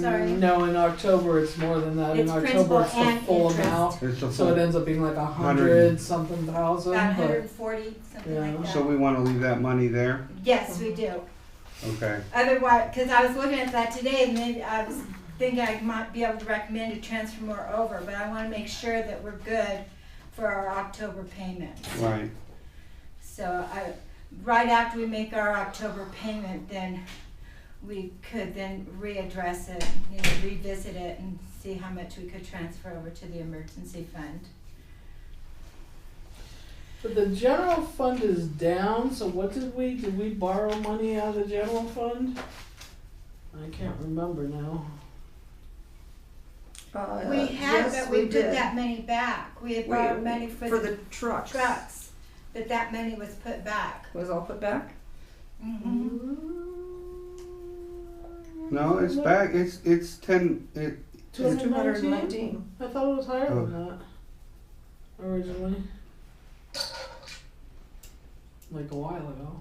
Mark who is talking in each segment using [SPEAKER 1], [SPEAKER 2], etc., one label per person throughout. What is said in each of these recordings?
[SPEAKER 1] Sorry.
[SPEAKER 2] No, in October it's more than that. In
[SPEAKER 1] It's
[SPEAKER 2] October
[SPEAKER 1] principal
[SPEAKER 2] it's the
[SPEAKER 1] and
[SPEAKER 2] full
[SPEAKER 1] interest.
[SPEAKER 2] amount,
[SPEAKER 3] It's a
[SPEAKER 2] so it
[SPEAKER 3] full,
[SPEAKER 2] ends up being like a hundred
[SPEAKER 3] Hundred.
[SPEAKER 2] something thousand.
[SPEAKER 1] About hundred
[SPEAKER 2] but-
[SPEAKER 1] and forty, something
[SPEAKER 2] Yeah.
[SPEAKER 1] like
[SPEAKER 3] so
[SPEAKER 1] that.
[SPEAKER 3] we wanna leave that money there,
[SPEAKER 1] Yes, we do.
[SPEAKER 3] okay,
[SPEAKER 1] Otherwise, because I was looking at that today, and maybe I was thinking I might be able to recommend to transfer more over, but I want to make sure that we're good for our October payment.
[SPEAKER 3] right,
[SPEAKER 1] So I, right after we make our October payment, then we could then readdress it, you know, revisit it and see how much we could transfer over to the emergency fund.
[SPEAKER 2] But the general fund is down, so what did we, did we borrow money out of the general fund? I can't remember now.
[SPEAKER 4] Uh,
[SPEAKER 1] We had,
[SPEAKER 4] yes,
[SPEAKER 1] but we put
[SPEAKER 4] did.
[SPEAKER 1] that money back. We had
[SPEAKER 4] We-
[SPEAKER 1] borrowed money for
[SPEAKER 4] For
[SPEAKER 1] the
[SPEAKER 4] the trucks.
[SPEAKER 1] trucks, but that money was put back.
[SPEAKER 4] Was all put back?
[SPEAKER 2] Mm-hmm.
[SPEAKER 1] Mhm.
[SPEAKER 3] no, it's back, it's, it's ten, it,
[SPEAKER 4] It was two hundred and
[SPEAKER 2] 219?
[SPEAKER 4] nineteen.
[SPEAKER 2] I thought it was higher than
[SPEAKER 3] Oh.
[SPEAKER 2] that originally. Like a while ago.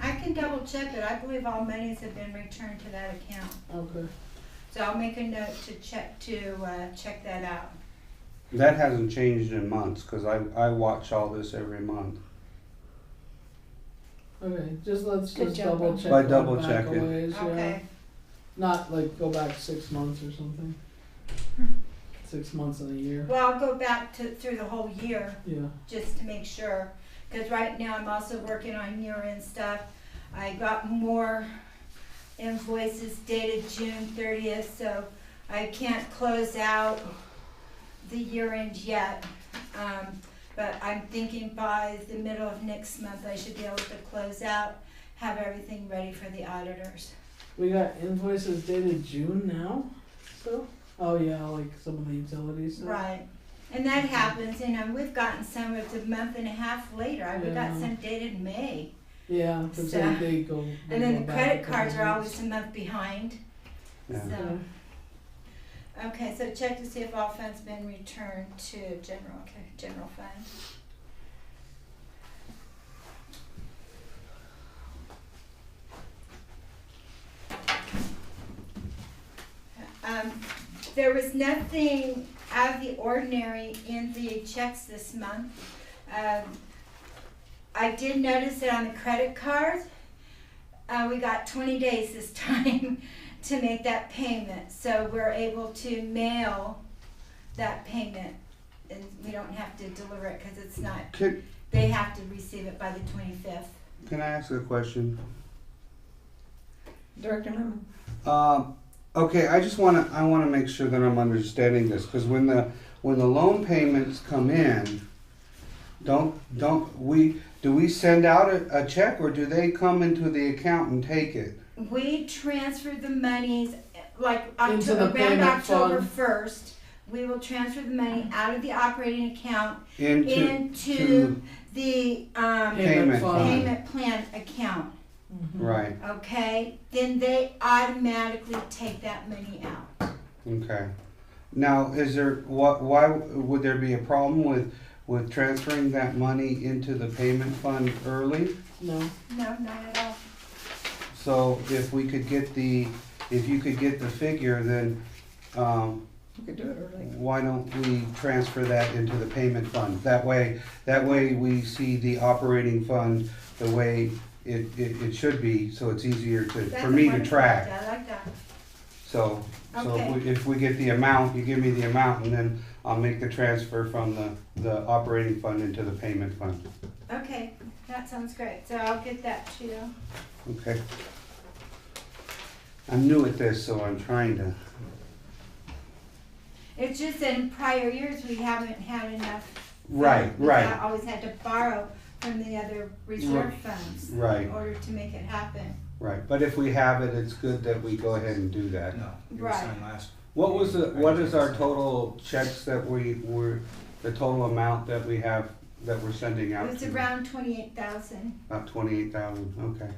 [SPEAKER 1] I can double check it. I believe all monies have been returned to that account.
[SPEAKER 2] Okay.
[SPEAKER 1] So I'll make a note to check, to, uh, check that out.
[SPEAKER 3] that hasn't changed in months, cause I, I watch all this every month.
[SPEAKER 2] Okay, just let's
[SPEAKER 4] Good
[SPEAKER 2] just
[SPEAKER 4] job,
[SPEAKER 2] double
[SPEAKER 4] Rob.
[SPEAKER 2] check.
[SPEAKER 3] By
[SPEAKER 2] that
[SPEAKER 3] double
[SPEAKER 2] back a
[SPEAKER 3] checking.
[SPEAKER 2] ways, yeah.
[SPEAKER 1] Okay.
[SPEAKER 2] Not like go back six months or something.
[SPEAKER 1] Hmm.
[SPEAKER 2] Six months in a year.
[SPEAKER 1] Well, I'll go back to, through the whole year
[SPEAKER 2] Yeah.
[SPEAKER 1] just to make sure. Cause right now I'm also working on year-end stuff. I got more invoices dated June thirtieth, so I can't close out the year-end yet. Um, but I'm thinking by the middle of next month, I should be able to close out, have everything ready for the auditors.
[SPEAKER 2] We got invoices dated June now. So. Oh yeah, like some of the utilities. stuff.
[SPEAKER 1] Right. And that happens, you know, we've gotten some, it's a month and a half later. I we got
[SPEAKER 2] Yeah.
[SPEAKER 1] some dated May.
[SPEAKER 2] Yeah, but
[SPEAKER 1] So-
[SPEAKER 2] then they go. they
[SPEAKER 1] And then
[SPEAKER 2] go
[SPEAKER 1] the
[SPEAKER 2] back
[SPEAKER 1] credit
[SPEAKER 2] a couple
[SPEAKER 1] cards are
[SPEAKER 2] months.
[SPEAKER 1] always a month behind,
[SPEAKER 3] Yeah.
[SPEAKER 1] so. Okay, so check to see if all funds been returned to general, okay, general fund. Um, there was nothing out of the ordinary in the checks this month. Um, I did notice that on the credit card, uh, we got twenty days this time to make that payment, so we're able to mail that payment. And we don't have to deliver it, cause it's not,
[SPEAKER 3] Can,
[SPEAKER 1] they have to receive it by the twenty-fifth.
[SPEAKER 3] can I ask a question?
[SPEAKER 4] Director Lemon.
[SPEAKER 3] Um, okay, I just wanna, I wanna make sure that I'm understanding this, cause when the, when the loan payments come in, don't, don't, we, do we send out a, a check or do they come into the account and take it?
[SPEAKER 1] We transferred the monies, like
[SPEAKER 2] Into the
[SPEAKER 1] October, around
[SPEAKER 2] payment
[SPEAKER 1] October
[SPEAKER 2] fund.
[SPEAKER 1] first, we will transfer the money out of the operating account
[SPEAKER 3] Into,
[SPEAKER 1] into
[SPEAKER 3] to-
[SPEAKER 1] the, um,
[SPEAKER 3] Payment fund.
[SPEAKER 1] payment plan account,
[SPEAKER 3] right,
[SPEAKER 1] okay? Then they automatically take that money out.
[SPEAKER 3] okay. Now, is there, what, why, would there be a problem with, with transferring that money into the payment fund early?
[SPEAKER 2] No.
[SPEAKER 1] No, not at all.
[SPEAKER 3] So if we could get the, if you could get the figure, then, um,
[SPEAKER 4] You could do it early.
[SPEAKER 3] Why don't we transfer that into the payment fund? That way, that way we see the operating fund the way it, it, it should be, so it's easier to,
[SPEAKER 1] That's
[SPEAKER 3] for me to
[SPEAKER 1] wonderful
[SPEAKER 3] track.
[SPEAKER 1] idea. I like that.
[SPEAKER 3] So, so if
[SPEAKER 1] Okay.
[SPEAKER 3] we, if we get the amount, you give me the amount, and then I'll make the transfer from the, the operating fund into the payment fund,
[SPEAKER 1] Okay, that sounds great. So I'll get that to you.
[SPEAKER 3] okay? I'm new at this, so I'm trying to,
[SPEAKER 1] It's just that in prior years, we haven't had enough.
[SPEAKER 3] right,
[SPEAKER 1] funds. We've
[SPEAKER 3] right,
[SPEAKER 1] Always had to borrow from the other reserve funds in
[SPEAKER 3] right,
[SPEAKER 1] order to make it happen.
[SPEAKER 3] right. But if we have it, it's good that we go ahead and do that.
[SPEAKER 5] No, it
[SPEAKER 1] Right.
[SPEAKER 5] was signed last.
[SPEAKER 3] What was the, what is our
[SPEAKER 5] Right.
[SPEAKER 3] total checks that we were, the total amount that we have, that we're sending
[SPEAKER 1] It
[SPEAKER 3] out?
[SPEAKER 1] was
[SPEAKER 3] to-
[SPEAKER 1] around twenty-eight thousand,
[SPEAKER 3] About twenty-eight thousand, okay.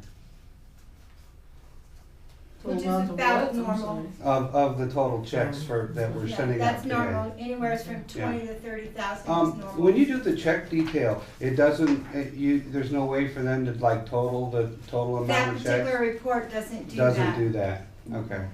[SPEAKER 1] Which is
[SPEAKER 2] Amount of
[SPEAKER 1] about
[SPEAKER 2] what? I'm
[SPEAKER 1] normal.
[SPEAKER 2] sorry.
[SPEAKER 3] Of, of the total checks for, that we're
[SPEAKER 1] yeah,
[SPEAKER 3] sending out
[SPEAKER 1] that's
[SPEAKER 3] today.
[SPEAKER 1] normal, anywhere from twenty to thirty thousand is
[SPEAKER 3] Um, when
[SPEAKER 1] normal.
[SPEAKER 3] you do the check detail, it doesn't, it, you, there's no way for them to like total the total
[SPEAKER 1] That
[SPEAKER 3] amount of
[SPEAKER 1] particular
[SPEAKER 3] checks?
[SPEAKER 1] report doesn't do that.
[SPEAKER 3] Doesn't do that, okay.